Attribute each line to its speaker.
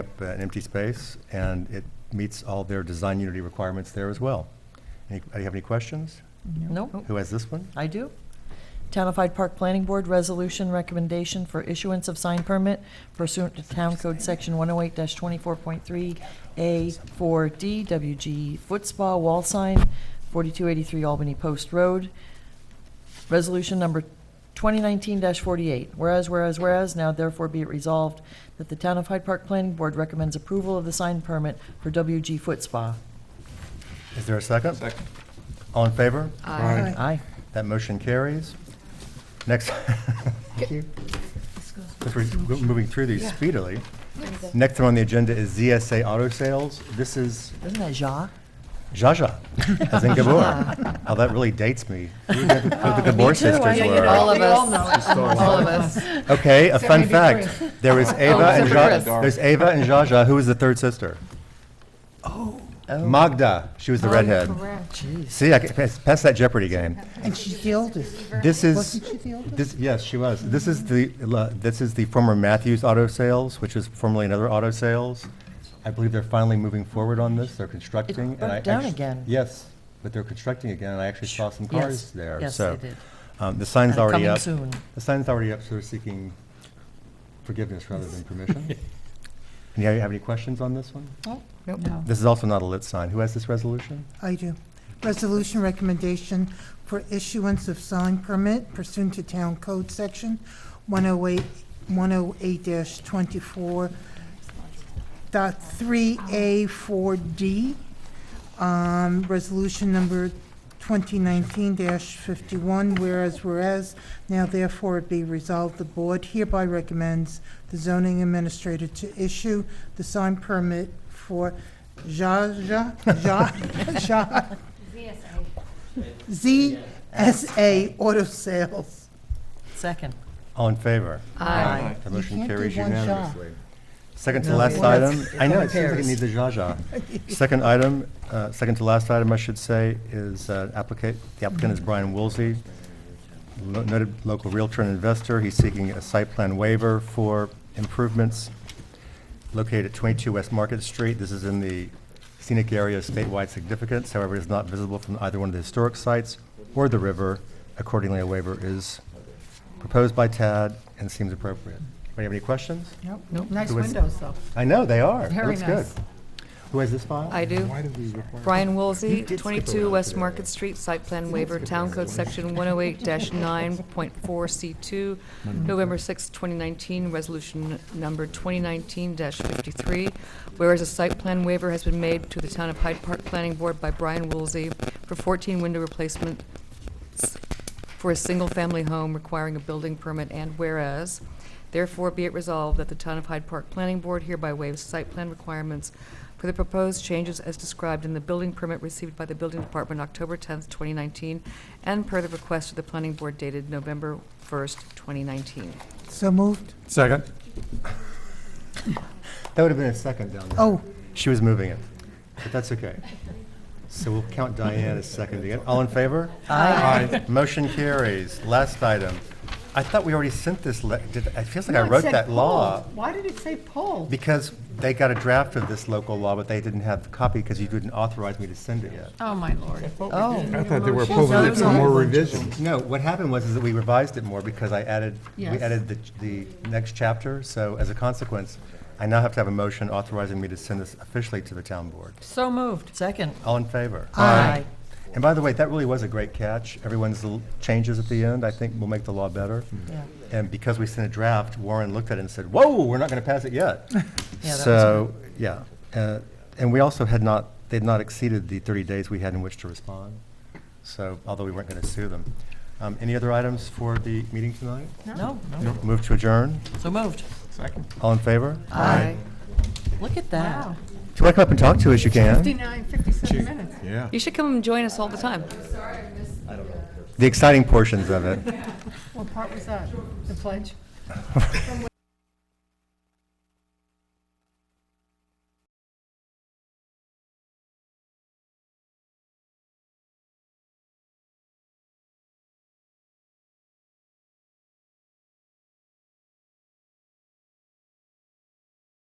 Speaker 1: up uh, an empty space, and it meets all their design unity requirements there as well. Any, do you have any questions?
Speaker 2: No,
Speaker 1: Who has this one?
Speaker 2: I do. Townfied Park Planning Board Resolution Recommendation for Issuance of Sign Permit pursuant to Town Code Section 108-24.3A4D WG Foot Spa Wall Sign, 4283 Albany Post Road. Resolution number 2019-48, whereas, whereas, whereas, now therefore be it resolved that the Town of Hyde Park Planning Board recommends approval of the sign permit for WG Foot Spa.
Speaker 1: Is there a second? Second. All in favor?
Speaker 3: Aye.
Speaker 2: Aye.
Speaker 1: That motion carries. Next. Thank you. Because we're go- moving through these speedily. Next one on the agenda is ZSA Auto Sales. This is
Speaker 2: Isn't that Ja?
Speaker 1: Jaja, as in Gabor. How that really dates me. Who the- who
Speaker 3: Uh,
Speaker 1: the Gabor sisters
Speaker 3: Yeah, you
Speaker 1: were.
Speaker 3: know, All of us.
Speaker 4: All of us.
Speaker 1: Okay, a fun
Speaker 4: maybe
Speaker 1: fact. There was Ava and
Speaker 4: except for
Speaker 1: Zsa- there's Ava and Jaja. Who was the third sister? Oh, Magda. She
Speaker 2: Oh,
Speaker 1: was the redhead. See, I can pass, pass that Jeopardy game.
Speaker 3: And she's the oldest.
Speaker 1: This is
Speaker 3: Wasn't she the oldest?
Speaker 1: this. Yes, she was. This is the la- this is the former Matthews Auto Sales, which is formerly another Auto Sales. I believe they're finally moving forward on this. They're constructing. and I
Speaker 2: burnt down
Speaker 1: actu-
Speaker 2: again.
Speaker 1: Yes, but they're constructing again, and I actually saw some
Speaker 2: Yes,
Speaker 1: cars there.
Speaker 2: yes,
Speaker 1: so
Speaker 2: they did.
Speaker 1: Um, the sign's
Speaker 2: And
Speaker 1: already
Speaker 2: coming
Speaker 1: up.
Speaker 2: soon.
Speaker 1: The sign's already up, so they're seeking forgiveness rather than permission. Any you have any questions on this one?
Speaker 3: Oh,
Speaker 4: No.
Speaker 1: This is also not a lit sign. Who has this resolution?
Speaker 3: I do. Resolution recommendation for issuance of sign permit pursuant to Town Code Section 108, 108-24 dot 3A4D, um, resolution number 2019-51, whereas, whereas, now therefore it be resolved, the board hereby recommends the zoning administrator to issue the sign permit for Zha, Zha, Zha, Zha, ZSA Auto Sales.
Speaker 2: Second.
Speaker 1: All in favor?
Speaker 4: Aye.
Speaker 1: The motion
Speaker 3: can't do
Speaker 1: carries
Speaker 3: one shot.
Speaker 1: unanimously. Second to
Speaker 2: No,
Speaker 1: last
Speaker 2: well, that's-
Speaker 1: item,
Speaker 2: it's
Speaker 1: I know,
Speaker 2: only
Speaker 1: it seems like it
Speaker 2: pairs.
Speaker 1: needs a zha-zha. Second item, uh, second to last item, I should say, is uh, applicant, the applicant is Brian Woolsey, lo- noted local realtor and investor. He's seeking a site plan waiver for improvements located at 22 West Market Street. This is in the scenic area of statewide significance, however, it is not visible from either one of the historic sites or the river. Accordingly, a waiver is proposed by Tad and seems appropriate. Anybody have any questions?
Speaker 4: Nice
Speaker 1: Who is-
Speaker 4: windows, though.
Speaker 1: I know, they are. It
Speaker 4: Very
Speaker 1: looks good.
Speaker 4: nice.
Speaker 1: Who has this file?
Speaker 5: I do. Brian Woolsey, 22 West Market Street, site plan waiver, Town Code Section 108-9.4C2, November 6, 2019, Resolution Number 2019-53. Whereas a site plan waiver has been made to the Town of Hyde Park Planning Board by Brian Woolsey for 14 window replacement for a single-family home requiring a building permit, and whereas, therefore be it resolved that the Town of Hyde Park Planning Board hereby waives site plan requirements for the proposed changes as described in the building permit received by the Building Department October tenth, twenty nineteen, and per the request of the Planning Board dated November first, twenty nineteen.
Speaker 3: So moved.
Speaker 6: Second.
Speaker 1: That would have been a second down there.
Speaker 3: Oh,
Speaker 1: She was moving it, but that's okay. So we'll count Diane as seconding it. All in favor? Aye. Motion carries. Last item. I thought we already sent this, le- did, it feels like I wrote that law
Speaker 4: Why did it say poll?
Speaker 1: because they got a draft of this local law, but they didn't have the copy because you didn't authorize me to send it yet.
Speaker 4: Oh, my lord.
Speaker 6: I thought they were pulling it for more revisions.
Speaker 1: No, what happened was is that we revised it more because I added, we
Speaker 4: Yes.
Speaker 1: added the, the next chapter. So as a consequence, I now have to have a motion authorizing me to send this officially to the town board.
Speaker 4: So moved.
Speaker 2: Second.
Speaker 1: All in favor?
Speaker 2: Aye.
Speaker 1: And by the way, that really was a great catch. Everyone's l- changes at the end, I think, will make the law better.
Speaker 2: Yeah.
Speaker 1: And because we sent a draft, Warren looked at it and said, whoa, we're not going to pass it yet.
Speaker 2: Yeah, that was
Speaker 1: So, yeah. Uh, And we also had not, they'd not exceeded the 30 days we had in which to respond. So, although we weren't going to sue them. Um, Any other items for the meeting tonight?
Speaker 2: No, no.
Speaker 1: Move to adjourn.
Speaker 2: So moved.
Speaker 1: All in favor?
Speaker 5: Aye.
Speaker 2: Look at that.
Speaker 1: If you want to come up and talk to us, you can.
Speaker 4: 59, 57 minutes.
Speaker 6: Yeah.
Speaker 5: You should come and join us all the time.
Speaker 1: The exciting portions of it.
Speaker 4: What part was that? The pledge?